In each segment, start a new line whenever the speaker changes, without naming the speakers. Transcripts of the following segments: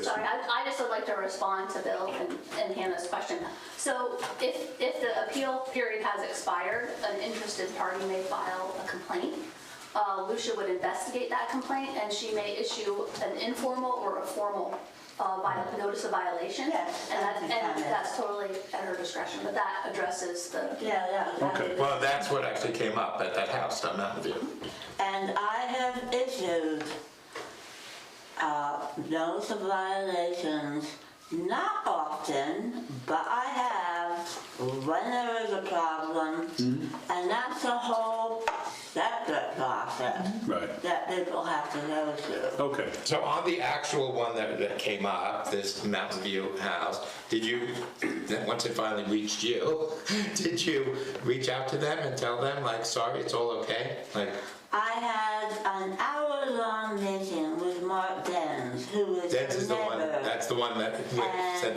sorry, I, I just would like to respond to Bill and, and Hannah's question. So if, if the appeal period has expired, an interested party may file a complaint. Uh, Lucia would investigate that complaint and she may issue an informal or a formal, uh, vi- notice of violation.
Yes,
And
that's
that,
a
and
comment.
that's totally at her discretion, but that addresses the,
Yeah, yeah. that
Okay,
would be-
well, that's what actually came up at that house down Mountain View.
And I have issued uh, notice of violations, not often, but I have when there is a problem.
Mm-hmm.
And that's a whole separate process
Mm-hmm.
Right.
that people have to go
Oh.
through.
Okay,
So on the actual one that, that came up, this Mountain View house, did you, that once it finally reached you, did you reach out to them and tell them, like, sorry, it's all okay? Like,
I had an hour-long meeting with Mark Dens, who is
that's is the
the
one,
neighbor.
that's the one that we sent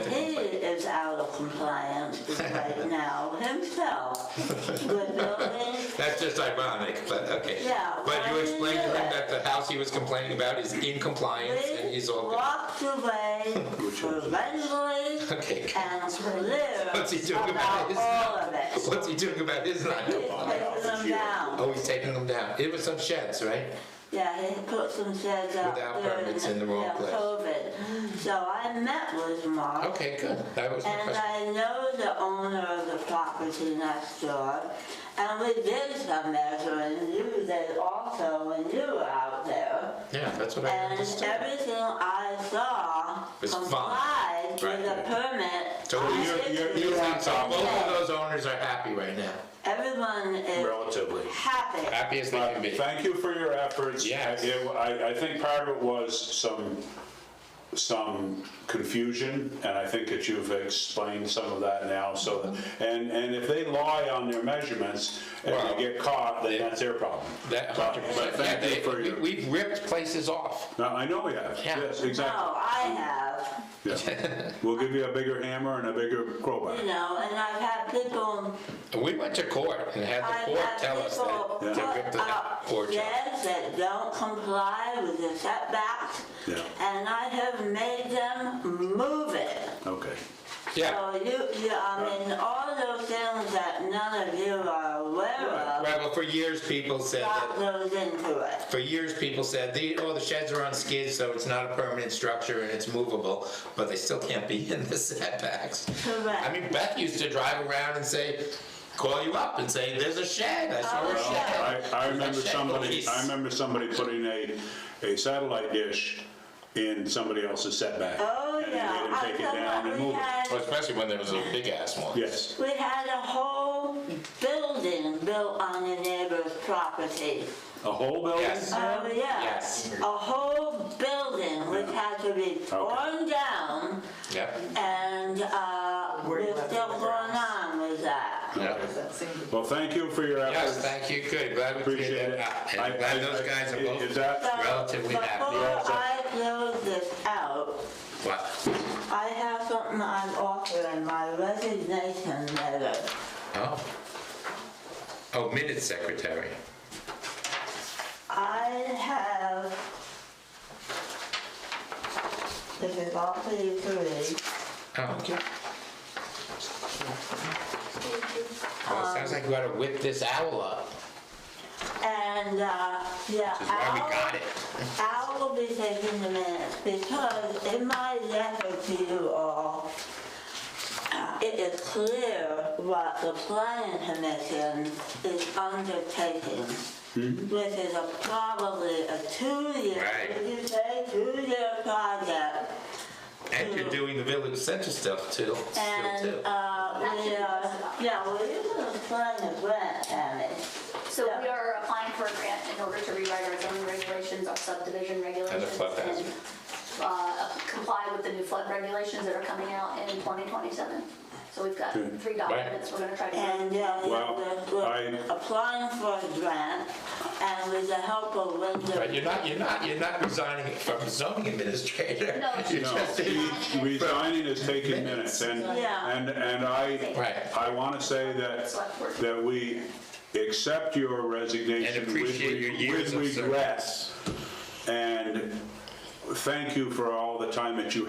And
the
he
complaint.
is out of compliance right now himself with building
That's just ironic, but okay.
Yeah,
But
why
you
didn't
explained to
you do
them that
it?
the house he was complaining about is in compliance and
We
he's all good.
walked away revengefully
Okay, good.
and clear
What's he doing
about
about his-
all of it.
What's he doing about his not
He's
compliance?
taking them down.
Oh, he's taking them down. It was some sheds, right?
Yeah, he put some sheds up
Without
during
permits in the wrong
yeah,
place.
COVID. So I met with Mark.
Okay, good. That was my
And
question.
I know the owner of the property next door, and we did some measuring, you did also when you were out there.
Yeah, that's what I
uh, And
understood.
everything I saw
Was fine.
complied with
Right.
the permit.
So
I
you're, you're,
issued.
you're,
have
so both
something.
of those owners are happy right now.
Everyone is
relatively.
happy.
Happy as they can be.
Thank you for your efforts.
Yes.
I- it- I, I think part of it was some, some confusion, and I think that you've explained some of that now, so, that- and, and if they lie on their measurements and
Well,
they get caught, then that's their problem.
That,
But- but
yeah,
Thank you
they,
for
we,
your,
we've ripped places off.
No, I know we have,
Yeah.
yes,
No,
exactly.
I have,
Yeah. We'll give you a bigger hammer and a bigger crowbar.
you know, and I've had people,
And we went to court and had the
I've
court
had
tell us
Uh, people
that
put
to rip the
up
porch off.
sheds that don't comply with the setbacks.
Yeah.
And I have made them move it.
Okay,
Yeah,
So you, you, I mean, all those things that none of you are aware of,
right, well, for years people said that
got those into it.
For years, people said, "The- oh, the sheds are on skids, so it's not a permanent structure and it's movable, but they still can't be in the setbacks.
Correct.
I mean, Beth used to drive around and say, call you up and say, there's a shed, I saw a
Oh,
I,
shed.
I
There's a
remember
shed
somebody,
police."
I remember somebody putting a, a satellite dish in somebody else's setback.
Oh,
and they
yeah.
didn't
I
take it
thought
down and
we
move it.
had-
Well, Especially when there was a big ass one.
Yes,
We had a whole building built on the neighbor's property.
a whole building?
Yes.
Oh, yeah.
Yes.
A whole building which had to be torn down
Yep.
and, uh,
Where you
we're
left
still
it with
going
grass.
on with that.
Yeah.
that single-
Well, thank you for your
Yes,
efforts,
thank you, good, glad we
appreciate
cleared
it.
that up.
I-
And glad
I-
those
I-
guys are
Is
So
both,
that,
Relatively happy.
Before I close this out,
what?
I have something I'm offering, my resignation letter.
Oh. Oh, minute secretary.
I have, this is all for you to read.
Oh, okay. Well, it sounds like we gotta whip this owl up,
And, uh, yeah.
which is why we got it.
I will be taking the minutes because in my letter to you all, uh, it is clear what the planning commission is undertaking.
Mm-hmm.
Which is a probably a two-year,
Right.
did you say, two-year project.
And you're doing the village center stuff too, still
And,
too.
uh, we are, yeah, well, you can explain the grant, Tammy.
so we are applying for a grant in order to rewrite our zoning regulations, our subdivision regulations.
flood hazard.
and, uh, Comply with the new flood regulations that are coming out in 2027. So we've got three documents we're gonna try to.
And, yeah,
Well,
we're
I-
applying for a grant and with the help of Wyndham.
But you're not, you're not, you're not resigning from zoning administrator.
No.
You're
no,
just-
re- resigning is taking minutes, and,
Yeah.
and, and I,
Right.
I want to say that,
Select board.
that we accept your resignation.
And appreciate
with-
your years of
With regret, and thank you for all the time that you